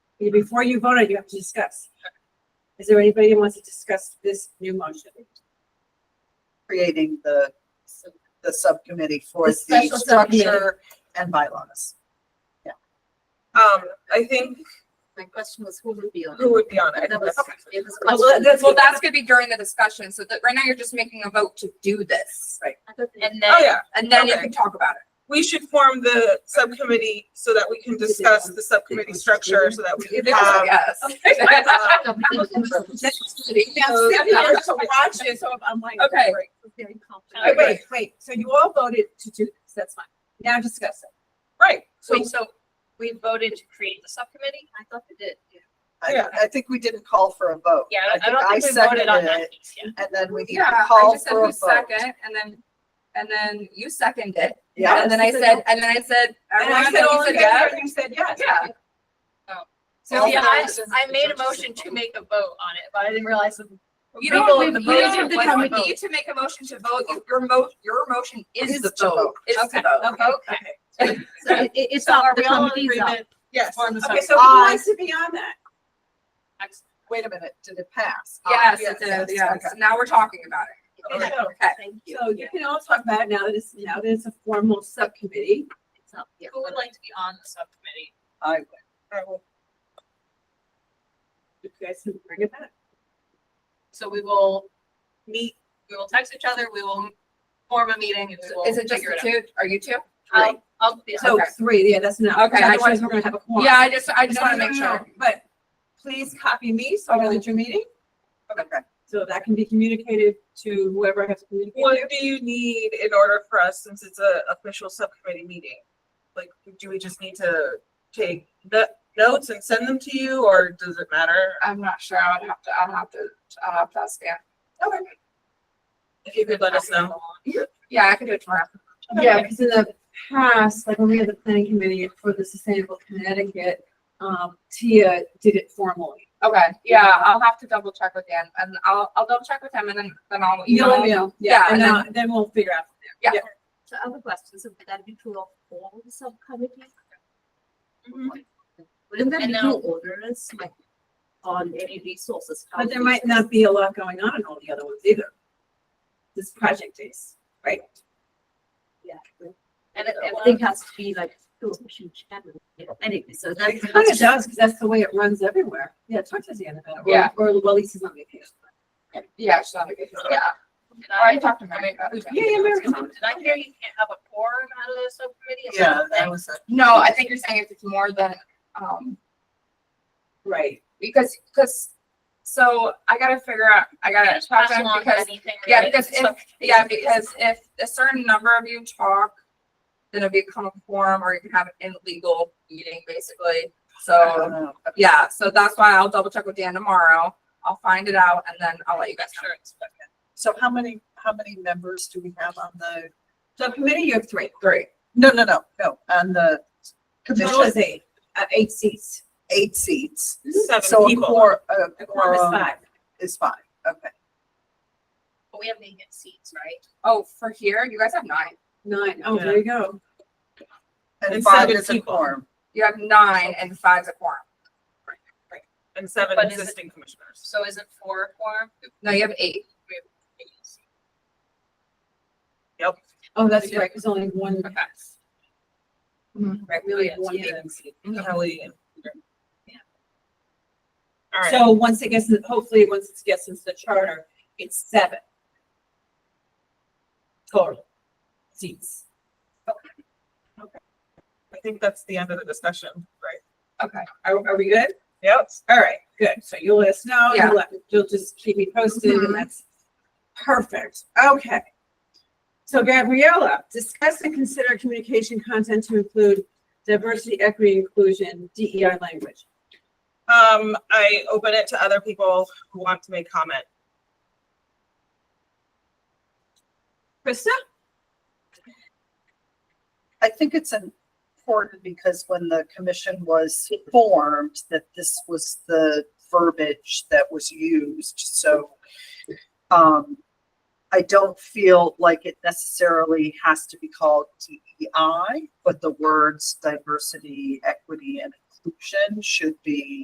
Before you vote on, it, you have to discuss. Is there anybody who wants to discuss this new motion? creating the, the subcommittee for The the special subcommittee. structure and bylaws. Um, I think My question was who would be on who would be on it? That was, it was. Well, that- that's, well, that's gonna be during the discussion, so that, right now you're just making a vote to do this. Right. uh, And Oh, then, yeah, and then you Okay. can talk about it. we should form the subcommittee so that we can discuss the subcommittee structure so that we can have. Yes. um, sitting here to watch it, so I'm like. Okay. Oh, Wait, Wait, wait, so you all voted to do this, that's fine. Now discuss it. Right, Wait, so we voted to create the subcommittee? I thought they did. I, Yeah. I think we didn't call for a vote. Yeah, I don't think we voted on seconded that it, piece yet. And then we need Yeah, to I call just said for a who's vote. second, and then, and then you seconded, Yeah, and then I said, and then I said, And I everyone, said, and you all in said, favor, yeah. and you said yes. Yeah. So yeah, I, So, I made a motion to make a vote on it, but I didn't realize. the you people don't, in the you vote don't, didn't want you to vote. need to make a motion to vote, You- your mo, your motion is Is the to vote. vote. It's the Okay, vote. okay, Okay. okay. So it, it- it's So not are the we all in committee's up. agreement? yes. Form the Okay, subcommittee. so who wants to be on that? wait a minute, did it pass? Yes, Ah, it did, yes, yes. Now we're talking about it. Okay. Okay. Thank you. So you can all talk about it now that it's, now that it's a formal subcommittee. It's not- yeah. Who would like to be on the subcommittee? I would. You guys can bring it back. So we will meet, we will text each other, we will form a meeting and we will Is it just figure the it out. two? Are you two? I'll, I'll, yeah. So Okay. three, yeah, that's enough. Okay, I Otherwise, just- we're gonna have a quorum. Yeah, I just, I just No, want to no, no, make no, sure. But please copy me so I know that you're meeting, Okay. so that can be communicated to whoever has to communicate. What do you need in order for us, since it's a official subcommittee meeting? Like, do we just need to take the notes and send them to you, or does it matter? I'm not sure. I would have to, I'll have to, uh, I'll have to ask Dan. If you could let us know. Yeah, I can do it tomorrow. Yeah, because in the past, like when we had the planning committee for the Sustainable Connecticut, um, Tia did it formally. Okay, yeah, I'll have to double check with Dan and I'll, I'll double check with him and then, then I'll You'll email. email, Yeah, yeah, and and then, then we'll figure out. So other questions, would that be true of all the subcommittees? Mhm. Wouldn't that Mm-hmm. And be true now- orders, like, on any resources? But there might not be a lot going on in all the other ones either. This project is, right? Yeah. And And it- it everything has to be like, two huge channel, anyway, so that's. It kind of does, because that's the way it runs everywhere. Yeah, talk to Deanna about it. or- Yeah. Or well, Lisa's on vacation. Yeah, she's on vacation. Yeah, Did All right, I, talk to Mary. about it. Yeah, yeah, Mary. did I hear you can't have a quorum out of the subcommittee? Is Yeah, a that thing? was it. No, I think you're saying if it's more than, um, Right. because, because, so I gotta figure out, I Can I gotta just talk pass to him along because anything yeah, related to because if- subcommittees? Yeah, because if a certain number of you talk, then it'll become a quorum or you can have an illegal meeting I basically. So, don't know. yeah, so that's why I'll double check with Dan tomorrow. I'll find it out and then I'll let you guys know. Sure, it's- So how many, how many members do we have on the, So committee, you have three. Three. no, no, no, no, on the Total is commission, eight, uh, eight seats. eight seats. Seven So a people. quor- a The quorum is quorum five. is five, okay. But we have vacant seats, right? Oh, for here, you guys have nine. Nine. Oh, there you go. And And five seven is a people. quorum. You have nine and five's a quorum. And seven But is it- existing commissioners. So is it four quorum? No, you have eight. Oh, that's right, because only one, Okay. Mm-hmm. right, we only have Yes, one yeah. vacancy. Kelly and Peter. All right, So once it gets, in- hopefully, once it gets into the charter, it's seven. Total seats. I think that's the end of the discussion, right? Okay. Are, are we good? Yep. All right, good. So you'll let us know, Yeah. you'll, let- you'll just keep me posted Mhm. and that's perfect. Okay. So Gabriella, discuss and consider communication content to include diversity, equity, inclusion, DEI language. Um, I open it to other people who want to make comment. Krista? I think it's important because when the commission was formed, that this was the verbiage that was used, so um, I don't feel like it necessarily has to be called E DEI, but the words diversity, equity, and inclusion should be